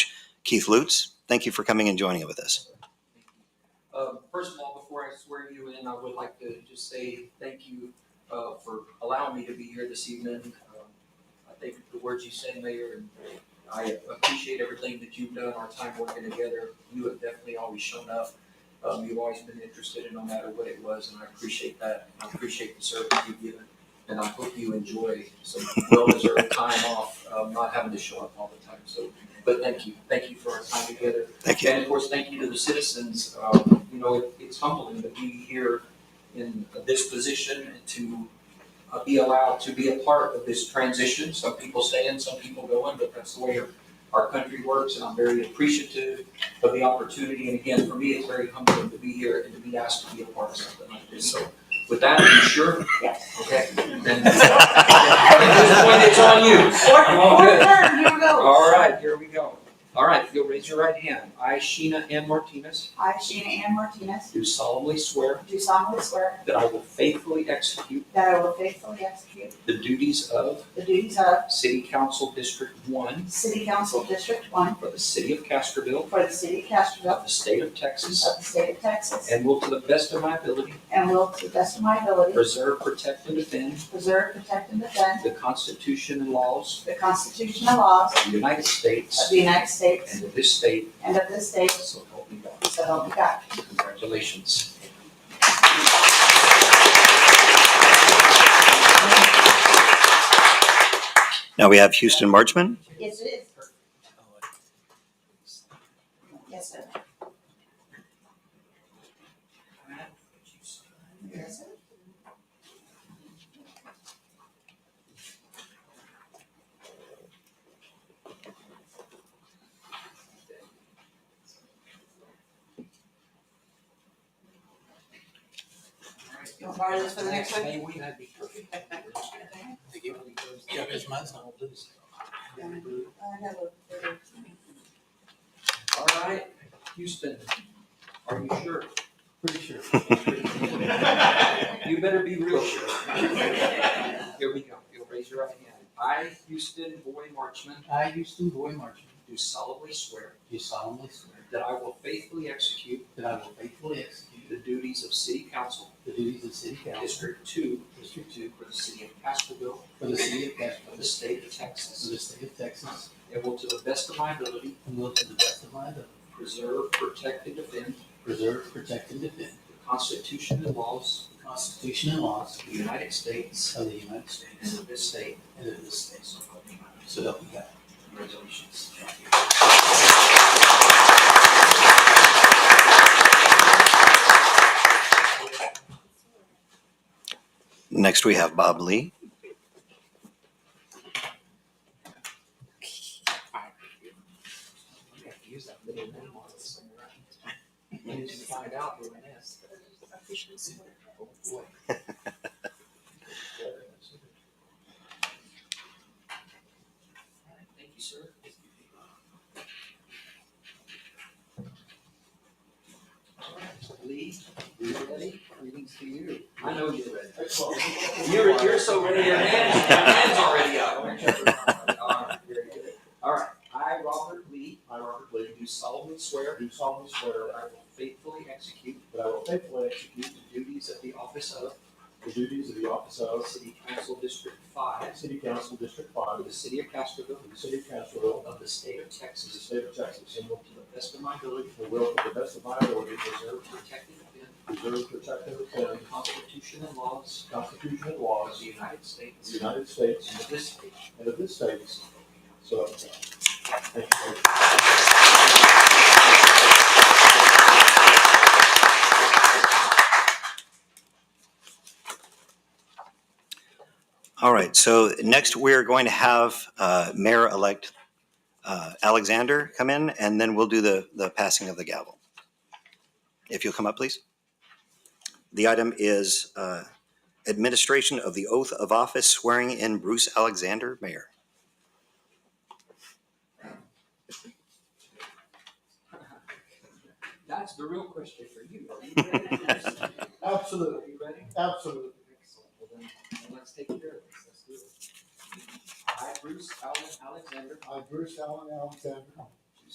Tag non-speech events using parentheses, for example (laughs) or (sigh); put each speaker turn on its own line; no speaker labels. Keith Lutz. Thank you for coming and joining with us.
Uh, First of all, before I swear you in, I would like to just say thank you uh, for allowing me to be here this evening. Um, I think the words you said, Mayor, and I appreciate everything that you've done, our time working together. You have definitely always shown up. Um, You've always been interested in no matter what it was, and I appreciate that. I appreciate the service you've given, and I hope you enjoy some well-deserved time off, um, not having to show up all the time. So, but thank you. Thank you for our time together.
Thank
(laughs)
you.
And of course, thank you to the citizens. Um, You know, it- it's humbling to be here in this position and to uh, be allowed to be a part of this transition. Some people stay in, some people go in, but that's the way our- our country works. And I'm very appreciative of the opportunity. And again, for me, it's very humbling to be here and to be asked to be a part of something like this. So with that, are you sure?
Yes.
Okay. Then- (laughs) At this point, it's on you.
Fourth,
Come on,
fourth
good.
term, here we go.
All right, here we go. All right, if you'll raise your right hand. I, Sheena M. Martinez.
I, Sheena Ann Martinez,
Do solemnly swear
do solemnly swear
that I will faithfully execute
that I will faithfully execute
the duties of
the duties of
City Council District One
City Council District One
for the City of Castroville,
for the city of
of
Castroville
the State of Texas,
of the state of Texas,
and will to the best of my ability
and will to the best of my ability
preserve, protect, and defend
preserve, protect, and defend
the Constitution and laws
the Constitution and laws
of the United
of
States
the United States
and of this state,
and of this state,
so help me God.
so help me God.
Congratulations.
Now we have Houston Marchman.
Yes, it is. Yes, sir. Yes, sir. You want to borrow this for the next one?
May we, that'd be perfect.
Yeah, because mine's not blue.
I have a-
All right, Houston, are you sure?
Pretty sure.
You better be real sure.
(laughs)
Here we go. You'll raise your right hand. I, Houston Boy Marchman,
I, Houston Boy Marchman,
do solemnly swear
do solemnly swear
that I will faithfully execute
that I will faithfully execute
the duties of City Council,
the duties of City Council
District Two, District Two, for the City of Castroville,
for the City of
for
Castroville,
the State of
for
Texas,
the State of Texas,
and will to the best of my ability
and will to the best of my ability
preserve, protect, and defend
preserve, protect, and defend
the Constitution and laws
the Constitution and laws
of the United States
of the United
and
States
of this state.
and of this state.
So help me God.
So help me God.
Congratulations.
Next we have Bob Lee.
You have to use that little name on this thing, right? You need to find out doing this. Oh, boy. Thank you, sir. Lee, you ready? Greetings to you. I know you're ready. You're, you're so ready, your hand, your hand's already up. All right, very good. All right, I, Robert Lee,
I, Robert Lee,
do solemnly swear
do solemnly swear
that I will faithfully execute
that I will faithfully
the duties of the office of
the duties of the office of
City Council District Five
City Council District Five
of
of
the City of Castroville
the City of Castroville
of the State of
to the
Texas
State of Texas,
and will to the best of my ability
and will to the best of my ability
preserve, protect, and defend
preserve, protect, and
the
defend
Constitution and laws
the Constitution and
of
laws
the United
of
States
the United States
and of this state.
and of this state, so help me God. Thank you.
All right, so next we're going to have uh, Mayor-elect uh, Alexander come in, and then we'll do the, the passing of the gavel. If you'll come up, please. The item is uh, administration of the oath of office swearing in Bruce Alexander, mayor.
That's the real question for you. Are you ready?
Absolutely,
Are you ready?
absolutely.
Excellent. Well, then, then let's take care of this. Let's do it. I, Bruce Allen Alexander,
I, Bruce Allen Alexander,